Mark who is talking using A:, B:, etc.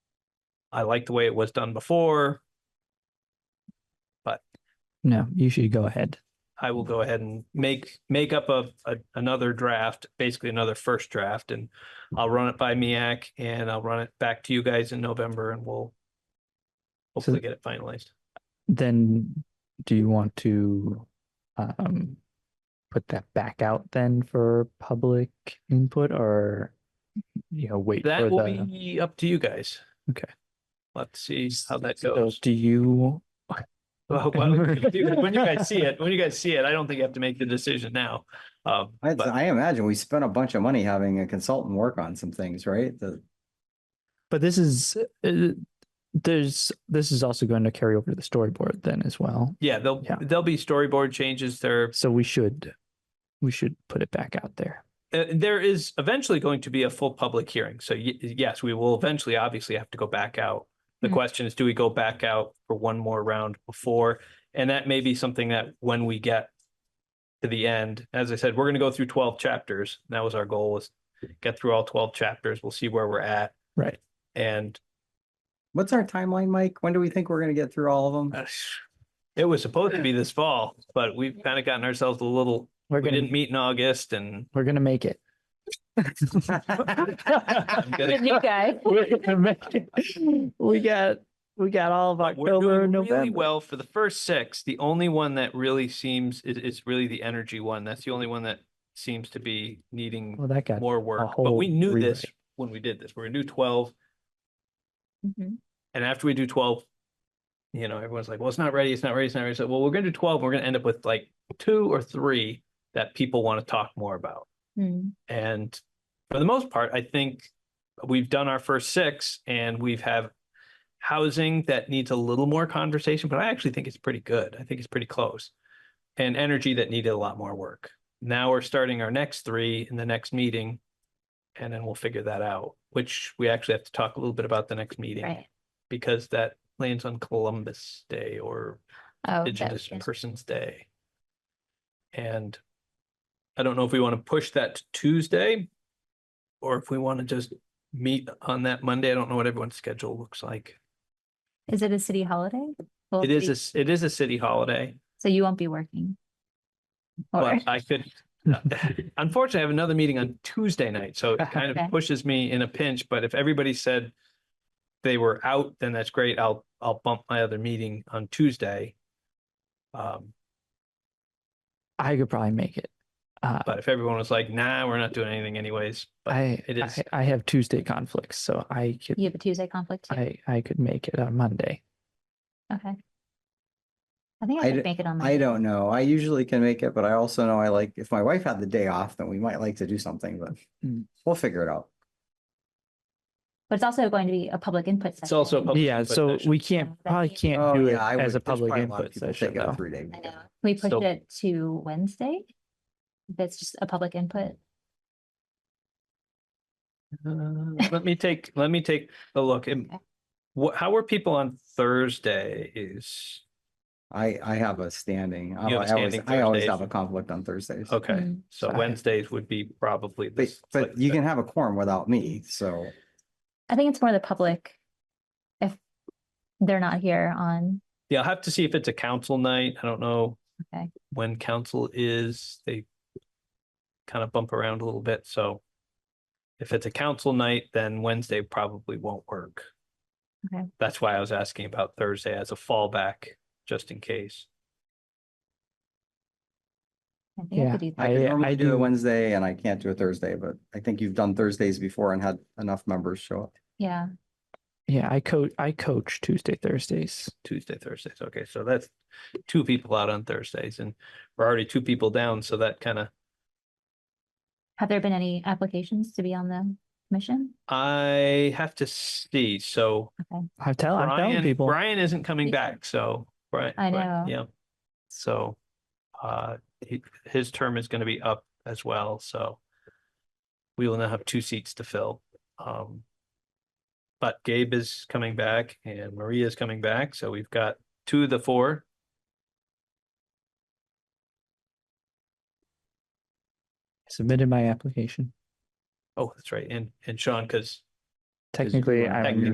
A: I like the way it was done before.
B: No, you should go ahead.
A: I
B: Mm-hmm.
A: will go ahead and make, make up a, a- another draft, basically another first draft, and I'll run it by MEAC and I'll run it back to you guys in November and we'll hopefully get it finalized.
B: Then do you want to um put that back out then for public input or you know, wait for
A: That will
B: the
A: be up to you guys.
B: Okay.
A: Let's see how that
B: So
A: goes.
B: do you
A: Well, well, When you guys see it, when you guys see it, I don't think you have to make the decision now. Um,
C: I,
A: but-
C: I imagine we spent a bunch of money having a consultant work on some things, right? The,
B: but this is uh, there's this is also going to carry over to the storyboard then as well.
A: Yeah, there'll,
B: Yeah.
A: there'll be storyboard changes. There,
B: So we should we should put it back out there.
A: uh, there is eventually going to be a full public hearing. So y- yes, we will eventually obviously have to go back out. The
D: Mhm.
A: question is, do we go back out for one more round before? And that may be something that when we get to the end, as I said, we're going to go through twelve chapters. That was our goal was get through all twelve chapters. We'll see where we're at.
B: Right.
A: And
C: what's our timeline, Mike? When do we think we're gonna get through all of them?
A: uh, it was supposed to be this fall, but we've kind of gotten ourselves a little,
B: We're
A: we
B: gonna
A: didn't meet in August and
B: we're gonna make it.
A: I'm gonna-
D: Good new guy.
B: We're gonna make it. We got we got all of
A: We're
B: October,
A: doing really
B: November.
A: well for the first six. The only one that really seems is, is really the energy one. That's the only one that seems to be needing
B: Well, that got
A: more work. But we
B: whole
A: knew this
B: rewrite.
A: when we did this. We're gonna do twelve,
D: Mhm.
A: and after we do twelve, you know, everyone's like, "Well, it's not ready. It's not ready. It's not ready." So, well, we're gonna do twelve. We're gonna end up with like two or three that people want to talk more about.
D: Mm.
A: And for the most part, I think we've done our first six and we've have housing that needs a little more conversation, but I actually think it's pretty good. I think it's pretty close. And energy that needed a lot more work. Now we're starting our next three in the next meeting. And then we'll figure that out, which we actually have to talk a little bit about the next meeting
D: Right.
A: because that lands on Columbus Day or
D: Oh, that
A: Indigenous
D: was good.
A: Persons Day. And I don't know if we want to push that to Tuesday or if we want to just meet on that Monday. I don't know what everyone's schedule looks like.
D: Is it a city holiday? Well,
A: It is, a
D: city-
A: s- it is a city holiday,
D: So you won't be working? Or,
A: but I could, uh, unfortunately, I have another meeting on Tuesday night, so it kind
D: Okay.
A: of pushes me in a pinch, but if everybody said they were out, then that's great. I'll, I'll bump my other meeting on Tuesday. Um,
B: I could probably make it. Uh,
A: but if everyone was like, nah, we're not doing anything anyways, but
B: I,
A: it is-
B: I I have Tuesday conflicts, so I could
D: you have a Tuesday conflict too?
B: I I could make it on Monday.
D: Okay. I think
C: I
D: I
C: d-
D: could make it on.
C: I
D: Monday.
C: don't know. I usually can make it, but I also know I like, if my wife had the day off, then we might like to do something, but
B: Mm.
C: we'll figure it out.
D: But it's also going to be a public input session.
A: It's also a public
B: Yeah,
A: input
B: so
A: session.
B: we can't
D: That'd
B: probably
D: be-
B: can't
C: Oh,
B: do it
C: yeah, I would-
B: as a
C: there's probably
B: public
C: lot of
B: input
C: people
B: session
C: taking a
B: though.
C: three-day
D: I know.
C: weekend.
D: Can We pushed
A: So-
D: it to Wednesday. That's just a public input.
A: Uh, Let me take, let me take a look. And
D: Mm-hmm. Okay.
A: wha- how are people on Thursdays?
C: I, I have a standing, I
A: You have a
C: I always,
A: standing
C: I always
A: Thursdays.
C: have a conflict on Thursdays.
A: Okay,
D: Mm.
A: so
B: Sorry.
A: Wednesdays would be probably
C: But,
A: this.
C: but you can have a quorum without me, so
D: I think it's more the public. If they're not here on,
A: Yeah, I'll have to see if it's a council night. I don't know.
D: Okay.
A: When council is, they kind of bump around a little bit, so if it's a council night, then Wednesday probably won't work.
D: Okay.
A: That's why I was asking about Thursday as a fallback, just in case.
D: I think I
B: Yeah,
D: could do
C: I
D: that.
B: I-
C: can normally do
B: do-
C: a Wednesday and I can't do a Thursday, but I think you've done Thursdays before and had enough members show up.
D: Yeah,
B: Yeah, I coach I coach Tuesday Thursdays.
A: Tuesday, Thursdays. Okay, so that's two people out on Thursdays and we're already two people down, so that kind of,
D: have there been any applications to be on the commission?
A: I have to see, so.
B: I tell I'm telling
A: Brian,
B: people
A: Brian isn't coming
D: Me too.
A: back, so, right. right,
D: I know.
A: Yeah, so, uh, he- his term is gonna be up as well, so. We will now have two seats to fill, um. But Gabe is coming back and Maria is coming back, so we've got two of the four.
B: submitted my application.
A: Oh, that's right, and, and Sean, because
B: Technically,
C: one
B: I'm
A: technically